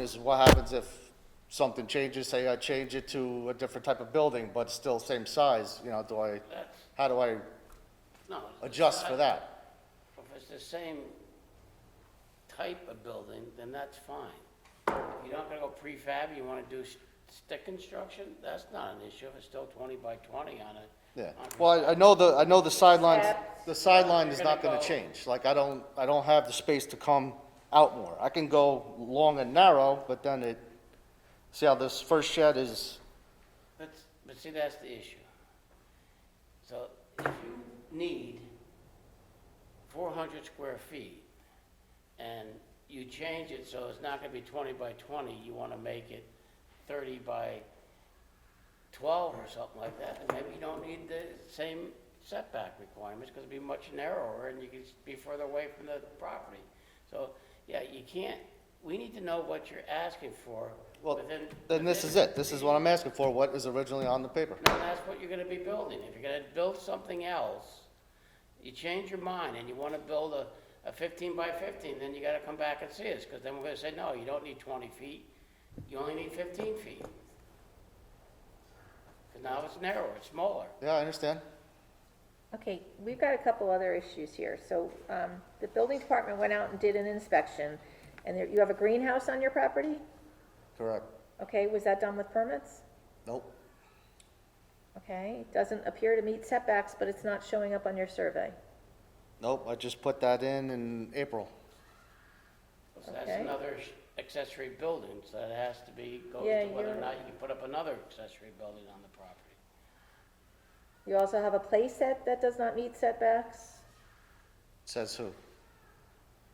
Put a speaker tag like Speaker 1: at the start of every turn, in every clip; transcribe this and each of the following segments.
Speaker 1: is what happens if something changes, say I change it to a different type of building, but still same size, you know, do I, how do I
Speaker 2: No.
Speaker 1: adjust for that?
Speaker 2: If it's the same type of building, then that's fine. You're not gonna go prefab, you wanna do s- stick construction, that's not an issue, if it's still twenty by twenty on it.
Speaker 1: Yeah, well, I- I know the, I know the sideline, the sideline is not
Speaker 2: You're
Speaker 1: gonna
Speaker 2: gonna go-
Speaker 1: change, like, I don't, I don't have the space to come out more. I can go long and narrow, but then it, see how this first shed is,
Speaker 2: But, but see, that's the issue. So if you need four hundred square feet and you change it so it's not gonna be twenty by twenty, you wanna make it thirty by twelve or something like that, then maybe you don't need the same setback requirements, because it'd be much narrower and you could be further away from the property. So, yeah, you can't, we need to know what you're asking for
Speaker 1: well,
Speaker 2: within.
Speaker 1: then this
Speaker 2: within
Speaker 1: is it, this
Speaker 2: the-
Speaker 1: is what I'm asking for, what is originally on the paper.
Speaker 2: no, that's what you're gonna be building. If you're gonna build something else, you change your mind and you wanna build a, a fifteen by fifteen, then you gotta come back and see us, cause then we're gonna say, no, you don't need twenty feet, you only need fifteen feet. Cause now it's narrower, it's smaller.
Speaker 1: Yeah, I understand.
Speaker 3: Okay, we've got a couple other issues here. So, um, the building department went out and did an inspection, and there, you have a greenhouse on your property?
Speaker 1: Correct.
Speaker 3: Okay, was that done with permits?
Speaker 1: Nope.
Speaker 3: Okay, it doesn't appear to meet setbacks, but it's not showing up on your survey.
Speaker 1: Nope. I just put that in in April.
Speaker 2: So that's
Speaker 3: Okay.
Speaker 2: another sh- accessory building, so that has to be, goes
Speaker 3: Yeah,
Speaker 2: to whether or
Speaker 3: you're-
Speaker 2: not you can put up another accessory building on the property.
Speaker 3: You also have a playset that does not meet setbacks,
Speaker 1: Says who?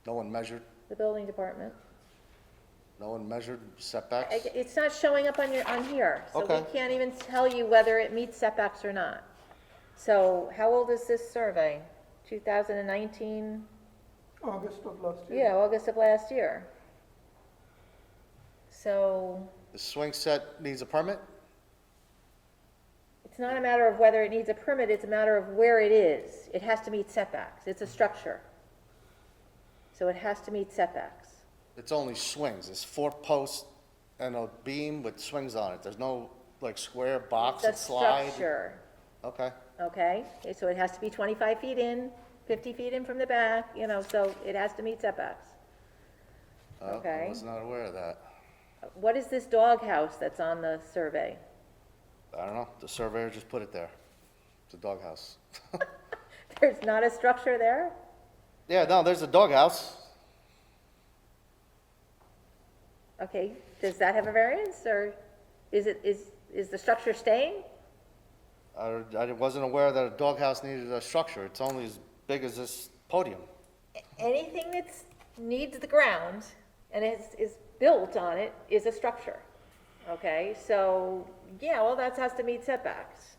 Speaker 1: No one measured.
Speaker 3: the building department.
Speaker 1: No one measured
Speaker 3: I-
Speaker 1: setbacks.
Speaker 3: It's not showing up on your, on here, so we
Speaker 1: Okay.
Speaker 3: can't even tell you whether it meets setbacks or not. So how old is this survey? 2019?
Speaker 4: August of last year.
Speaker 3: Yeah, August of last year. So
Speaker 1: The swing set needs a permit?
Speaker 3: it's not a matter of whether it needs a permit, it's a matter of where it is. It has to meet setbacks. It's a structure. So it has to meet setbacks.
Speaker 1: It's only swings. It's four posts and a beam with swings on it. There's no like square box and
Speaker 3: It's a
Speaker 1: slide.
Speaker 3: structure,
Speaker 1: Okay.
Speaker 3: okay? So it has to be 25 feet in, 50 feet in from the back, you know, so it has to meet setbacks.
Speaker 1: Oh, I
Speaker 3: Okay.
Speaker 1: was not aware of that.
Speaker 3: What is this doghouse that's on the survey?
Speaker 1: I don't know. The surveyor just put it there. It's a doghouse.
Speaker 3: There's not a structure there?
Speaker 1: Yeah, no, there's a doghouse.
Speaker 3: Okay, does that have a variance, or is it, is, is the structure staying?
Speaker 1: I, I wasn't aware that a doghouse needed a structure. It's only as big as this podium.
Speaker 3: anything that's, needs the ground and is, is built on it is a structure. Okay, so, yeah, well, that has to meet setbacks.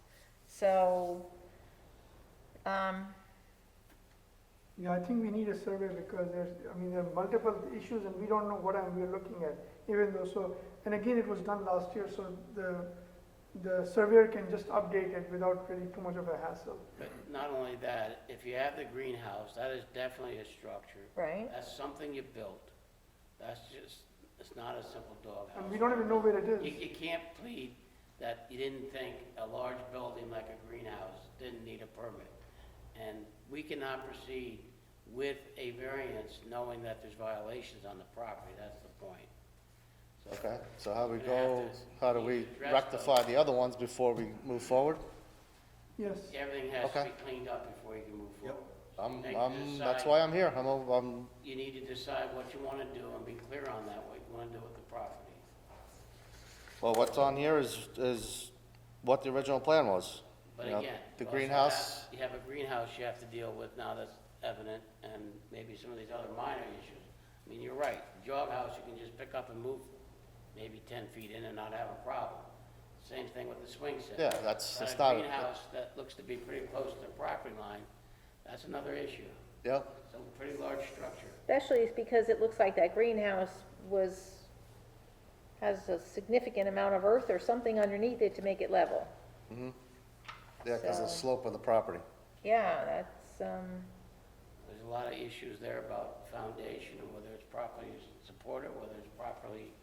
Speaker 3: So, um,
Speaker 4: Yeah, I think we need a survey because there's, I mean, there are multiple issues and we don't know what I'm- we're looking at, even though, so, and again, it was done last year, so the, the surveyor can just update it without really too much of a hassle.
Speaker 2: But not only that, if you have the greenhouse, that is definitely a structure.
Speaker 3: right?
Speaker 2: That's something you built. That's just, it's not a simple
Speaker 4: And we
Speaker 2: doghouse.
Speaker 4: don't even know where it
Speaker 2: You,
Speaker 4: is.
Speaker 2: you can't plead that you didn't think a large building like a greenhouse didn't need a permit. And we cannot proceed with a variance knowing that there's violations on the property, that's the point. So-
Speaker 1: Okay, so how do we
Speaker 2: We're gonna
Speaker 1: go,
Speaker 2: have to
Speaker 1: how do we
Speaker 2: address
Speaker 1: rectify the other ones before we move forward?
Speaker 4: Yes,
Speaker 2: Everything has to be
Speaker 1: Okay.
Speaker 2: cleaned up before you can move forward.
Speaker 1: I'm,
Speaker 2: They
Speaker 1: I'm, that's
Speaker 2: decide-
Speaker 1: why I'm here, I'm, a- I'm,
Speaker 2: You need to decide what you wanna do and be clear on that, what you wanna do with the property.
Speaker 1: well, what's on here is, is what the original plan was.
Speaker 2: But
Speaker 1: You know,
Speaker 2: again.
Speaker 1: The
Speaker 2: you also
Speaker 1: greenhouse,
Speaker 2: have- You have a greenhouse you have to deal with now that's evident, and maybe some of these other minor issues. I mean, you're right, jog house, you can just pick up and move maybe ten feet in and not have a problem. Same thing with the swing set.
Speaker 1: Yeah, that's-
Speaker 2: But
Speaker 1: it's not
Speaker 2: a
Speaker 1: a-
Speaker 2: greenhouse that looks to be pretty close to the property line, that's another issue.
Speaker 1: yep,
Speaker 2: It's a pretty large structure.
Speaker 3: Especially it's because it looks like that greenhouse was, has a significant amount of earth or something underneath it to make it level.
Speaker 1: yeah, because the
Speaker 3: So-
Speaker 1: slope of the property.
Speaker 3: Yeah, that's, um,
Speaker 2: There's a lot of issues there about foundation and whether it's properly supported, whether it's properly